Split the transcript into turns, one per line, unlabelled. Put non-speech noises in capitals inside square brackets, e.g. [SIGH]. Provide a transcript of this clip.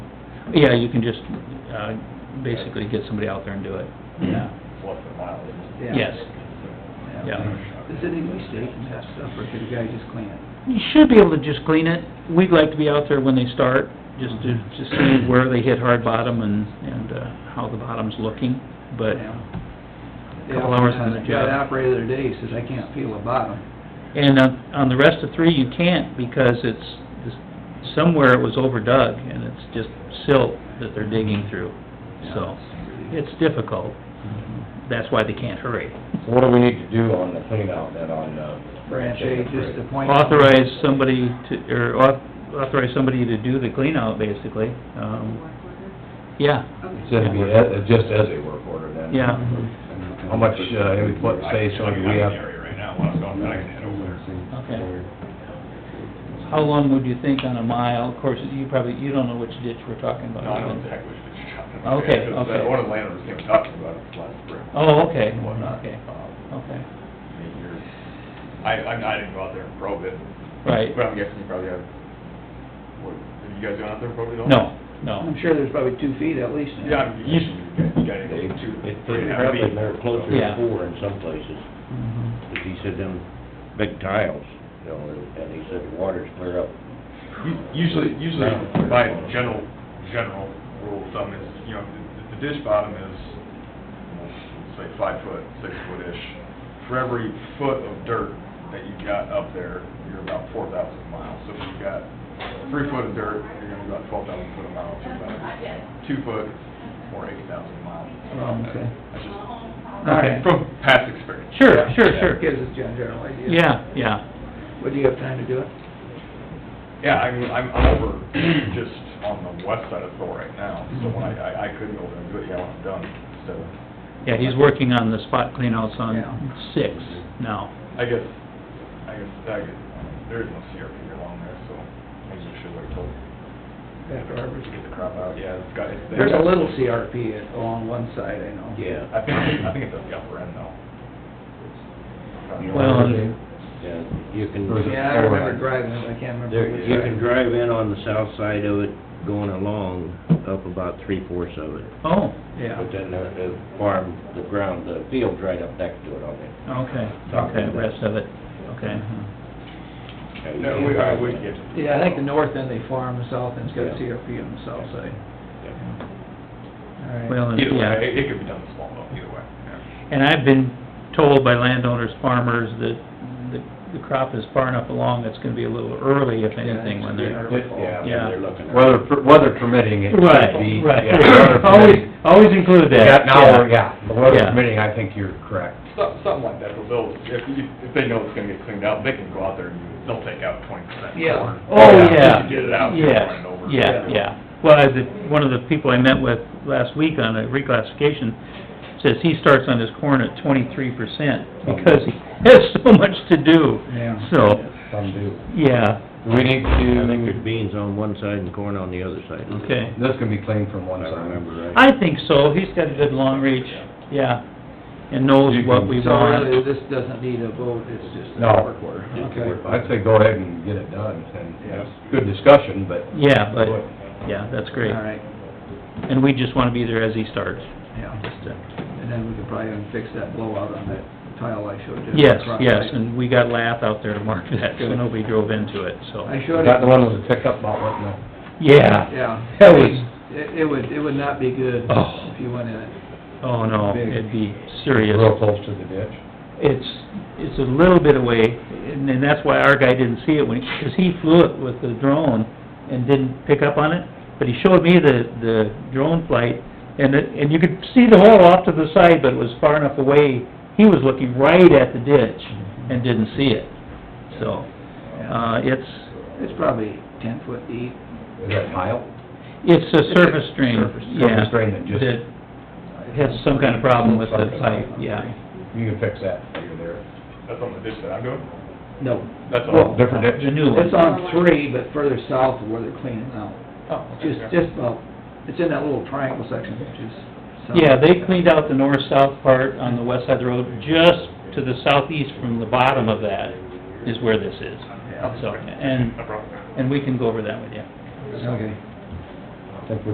Yeah, you can just, uh, basically get somebody out there and do it. Yeah.
What's the mileage?
Yeah.
Yes.
Yeah.
Does it need steak and that stuff, or could the guy just clean it?
You should be able to just clean it. We'd like to be out there when they start, just to, to see where they hit hard bottom and, and, uh, how the bottom's looking, but,
Yeah.
Couple hours on the
Yeah,
job.
That operator the other day says, I can't feel the bottom.
and on, on the rest of three, you can't, because it's, it's- somewhere it was overdug, and it's just silt that they're digging through, so, it's difficult. That's why they can't hurry.
So what do we need to do on the cleanout then on, uh?
Branch A, just the point.
Authorize somebody to, or au- authorize somebody to do the cleanout, basically, um, yeah.
Instead of be, uh, just as a work order then?
Yeah.
How much, uh, input space do we have?
Okay. How long would you think on a mile? Of course, you probably, you don't know which ditch we're talking about.
No, I don't think we should shut it.
Okay,
Because, uh,
okay.
One of the landowners came talking about it last spring.
Oh, okay,
and whatnot.
okay,
Um,
okay,
eight years. I, I I didn't go out there and probe it,
right.
but I'm guessing you probably have, what, have you guys gone out there and probed it all?
No, no.
I'm sure there's probably two feet at least. in it.
Yeah, I'm guessing you got, you got it
They,
two,
they
three and a half
probably
feet.
they're closer
Yeah.
to four in some places,
Mm-hmm.
Mhm.
if he said them big tiles, you know, and he said the water's clear up.
U- Usually, usually by general, general rule of thumb is, you know, the- the ditch bottom is, say, five foot, six foot-ish. For every foot of dirt that you got up there, you're about four thousand miles. So if you got three foot of dirt, you're gonna be about twelve thousand foot a mile, so about two foot or eight thousand miles.
Oh, okay.
That's just
All right.
From past experience.
Sure, sure, sure.
[LAUGHS] Gives us a general idea.
Yeah, yeah.
Would you have time to do it?
Yeah, I mean, I'm, I'm over just on the west side of Thor right now, so when I, I- I could go over and do it, yeah, when I'm done, so.
Yeah, he's working on the spot cleanouts on
Yeah.
six now.
I guess, I guess, I guess, there is no CRP along there, so maybe we should wait till,
After harvest?
to get the crop out, yeah, it's got, it's.
There's a little CRP at- along one side, I know.
Yeah.
I think, I think it's at the upper end though.
Well, and-
Yeah, you can,
Yeah, I remember driving, it, but I can't remember.
there,
which
you
side.
can drive in on the south side of it, going along, up about three-fourths of it.
Oh,
Yeah.
But then the, the farm, the ground, the field's right up next to it on there.
okay, okay, rest of it, okay.
Mm-hmm.
No, we, I would get.
Yeah, I think the north end they farm, the south end's got
Yeah.
CRP on the south side. All right.
Well, and-
Either
yeah.
way, it- it could be done small though, either way, yeah.
And I've been told by landowners, farmers, that the, the crop is far enough along, it's gonna be a little early, if anything, when they're...
Yeah,
Yeah.
they're looking. at-
Weather, per- weather permitting, it could be. yeah, weather
[LAUGHS]
permitting.
Always, always include
Yeah,
that.
now, yeah, the weather
Yeah.
permitting, I think you're correct.
So- Something like that, but they'll, if, you- if they know it's gonna get cleaned out, they can go out there and they'll take out twenty percent.
Yeah.
Oh, yeah.
Just get it out,
Yes,
run it over.
Yeah, yeah. Well, I- the, one of the people I met with last week on a reclassification says he starts on his corn at twenty-three percent because he [LAUGHS] has so much to do.
Yeah.
So,
Some do.
yeah,
Do we need
I think there's
to,
beans on one side and corn on the other side.
okay.
this can be cleaned from
If
one
I
side.
remember right.
I think so. He's got a good long reach, yeah, and knows
You
what
can-
we
So really,
want.
this doesn't need a vote, it's just a
No.
work order. Okay.
I'd say go ahead and get it done, and,
Yeah.
good discussion, but.
Yeah, but, yeah, that's great.
All right,
And we just wanna be there as he starts,
yeah,
just to...
and then we could probably even fix that blowout on that tile I showed you.
Yes,
Across
yes,
it.
and we got Lath out there to mark that, so
Good.
nobody drove into it, so.
I
Is
showed
that
it,
the one with the pickup not letting the?
Yeah,
yeah.
That
I
was-
mean, It, it would, it would not be good
Oh.
if you went in it.
oh no,
Big.
it'd be serious.
Real close to the ditch.
It's, it's a little bit away, and, and that's why our guy didn't see it when, because he flew it with the drone and didn't pick up on it, but he showed me the, the drone flight, and it, and you could see the hole off to the side, but it was far enough away, he was looking right at the ditch and didn't see it, so, uh, it's,
It's probably ten foot deep.
Is that tile?
it's a surface drain,
Surface-
yeah.
surface drain that just-
has some kind of problem with the pipe, yeah.
You can fix that while you're there.
That's on the ditch that I'm doing?
No.
That's
Well,
all.
different ditch.
The new one.
It's on three, but further south of where they're cleaning out.
Oh, okay,
Just,
yeah.
just, well, it's in that little triangle section, which is. south.
Yeah, they cleaned out the north-south part on the west side of the road, just to the southeast from the bottom of that is where this is.
Yeah.
So, and,
No problem.
and we can go over that with you.
Okay.
I think we